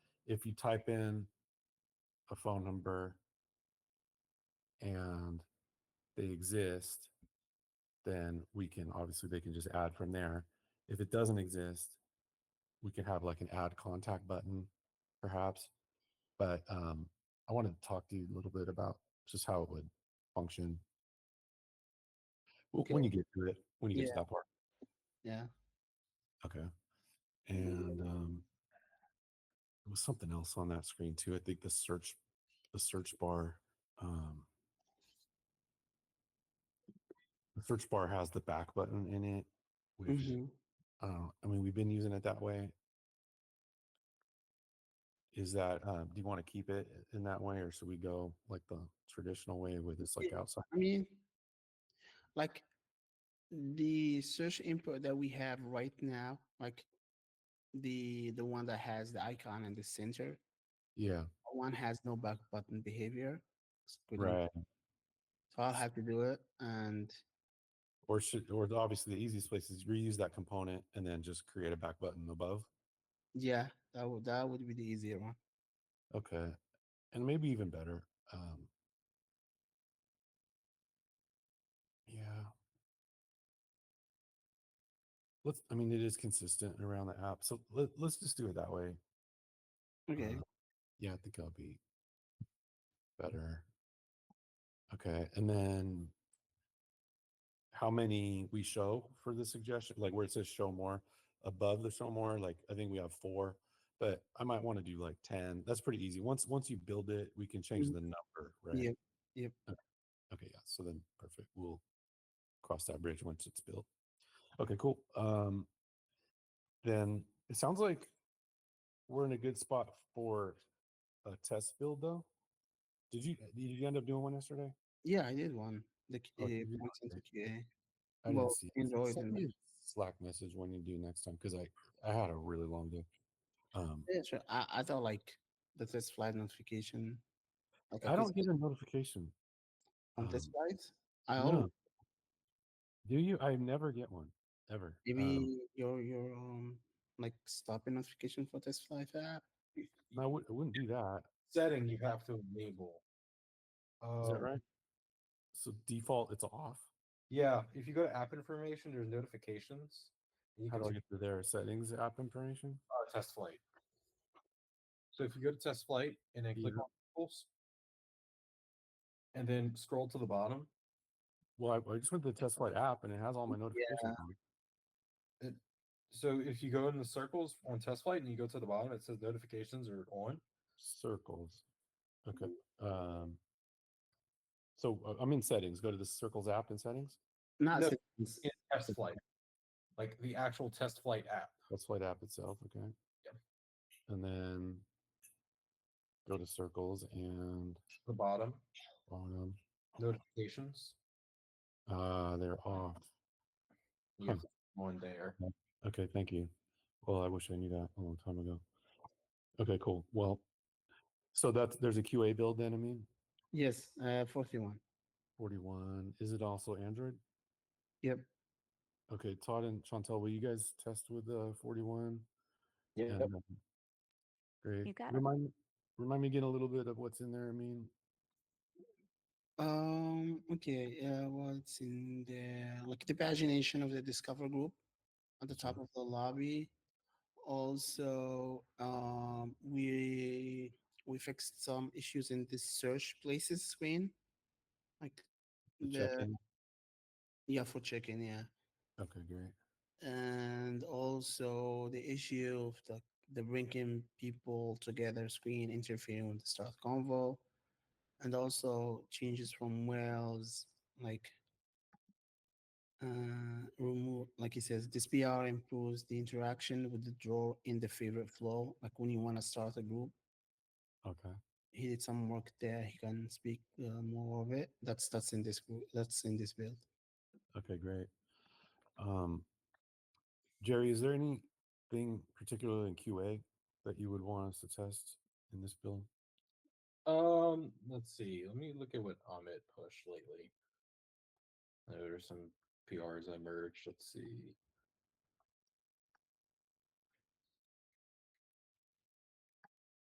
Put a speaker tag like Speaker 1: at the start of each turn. Speaker 1: if you type in a phone number and they exist, then we can obviously they can just add from there. If it doesn't exist, we could have like an add contact button, perhaps. But um, I wanted to talk to you a little bit about just how it would function W- when you
Speaker 2: Okay.
Speaker 1: get to it. When you get to that part,
Speaker 2: Yeah. Mm-hmm.
Speaker 1: okay. And um, there was something else on that screen too. I think the search, the search bar. Um, the search bar has the back button in it, which
Speaker 2: Mhm.
Speaker 1: I don't know. I mean, we've been using it that way. Is that, uh, do you want to keep it in that way or should we go like the traditional way with this like
Speaker 2: Yeah.
Speaker 1: outside?
Speaker 2: I mean, like the search input that we have right now, like the the one that has the icon in the center,
Speaker 1: Yeah,
Speaker 2: that one has no back button behavior. It's pretty-
Speaker 1: right.
Speaker 2: So I'll have to do it, and
Speaker 1: Or should, or the- obviously the easiest place is reuse that component and then just create a back button above.
Speaker 2: yeah, that would that would be the easier one.
Speaker 1: Okay. And maybe even better. Um, yeah. Let's, I mean, it is consistent around the app. So let, let's just do it that way.
Speaker 2: Okay.
Speaker 1: Uh, yeah, I think I'll be better. Okay, and then how many we show for the suggestion? Like where it says show more above the show more, like I think we have four, but I might want to do like ten. That's pretty easy. Once once you build it, we can change
Speaker 2: Mhm.
Speaker 1: the number, right?
Speaker 2: Yep, yep.
Speaker 1: Okay. okay, yeah. So then perfect. We'll cross that bridge once it's built. Okay, cool. Um then it sounds like we're in a good spot for a test build though. Did you did you end up doing one yesterday?
Speaker 2: Yeah, I did one. The
Speaker 1: Oh,
Speaker 2: QA,
Speaker 1: did you?
Speaker 2: points into
Speaker 1: Okay.
Speaker 2: QA.
Speaker 1: I didn't
Speaker 2: Well,
Speaker 1: see. it.
Speaker 2: Android
Speaker 1: Send
Speaker 2: and-
Speaker 1: me a Slack message when you do next time because I I had a really long day. Um,
Speaker 2: Yeah, sure. I, I thought like the test flight notification. Like
Speaker 1: I
Speaker 2: could
Speaker 1: don't
Speaker 2: see
Speaker 1: get a notification.
Speaker 2: on test
Speaker 1: um,
Speaker 2: flights. I
Speaker 1: No.
Speaker 2: always
Speaker 1: Do you? I never get one ever.
Speaker 2: Maybe
Speaker 1: Um,
Speaker 2: your your um like stopping notification for test flight app.
Speaker 1: no, I, would, I wouldn't do that.
Speaker 3: setting you have to enable.
Speaker 1: Is
Speaker 2: Oh.
Speaker 1: that
Speaker 3: Um,
Speaker 1: right? So default, it's off.
Speaker 3: Yeah, if you go to app information, there's notifications. and You
Speaker 1: How
Speaker 3: can
Speaker 1: do I
Speaker 3: see
Speaker 1: get to their settings app information?
Speaker 3: uh, test flight. So if you go to test flight and then click
Speaker 1: Yeah.
Speaker 3: on pulse, and then scroll to the bottom,
Speaker 1: Well, I, I just went to the test flight app and it has all my notifications. on.
Speaker 3: so if you go in the circles on test flight and you go to the bottom, it says notifications are on.
Speaker 1: Circles. Okay. Um, so uh, I'm in settings. Go to the circles app in settings.
Speaker 2: Not
Speaker 3: No,
Speaker 2: settings.
Speaker 3: In test flight, like the actual test flight app.
Speaker 1: Let's play the app itself, okay?
Speaker 3: Yep.
Speaker 1: And then go to circles and
Speaker 3: The bottom
Speaker 1: bottom.
Speaker 3: notifications.
Speaker 1: Ah, they're off.
Speaker 3: You
Speaker 1: Huh.
Speaker 3: have one there.
Speaker 1: Okay, thank you. Well, I wish I knew that a long time ago. Okay, cool. Well, so that's there's a QA build then, I mean,
Speaker 2: Yes, uh, forty one.
Speaker 1: 41. Is it also Android?
Speaker 2: Yep.
Speaker 1: Okay, Todd and Chantel, will you guys test with the 41?
Speaker 3: Yeah.
Speaker 1: And, um, Great.
Speaker 4: You got it.
Speaker 1: remind, remind me again a little bit of what's in there, I mean.
Speaker 2: Um. Okay. Uh, what's in the like the pagination of the Discover group at the
Speaker 1: Mm-hmm.
Speaker 2: top of the lobby. Also, um, we we fixed some issues in the search places screen, like
Speaker 1: the
Speaker 2: the
Speaker 1: check-in?
Speaker 2: yeah for checking yeah.
Speaker 1: Okay, great.
Speaker 2: and also the issue of the, the bringing people together screen interfering with the start convo and also changes from Wales like uh remove like it says this PR improves the interaction with the draw in the favorite flow like when you want to start a group
Speaker 1: Okay.
Speaker 2: he did some work there he can speak uh, more of it that's that's in this group that's in this build
Speaker 1: Okay, great. Um, Jerry, is there anything particular in QA that you would want us to test in this build?
Speaker 3: Um, let's see. Let me look at what Amit pushed lately. There are some PRs I merged. Let's see.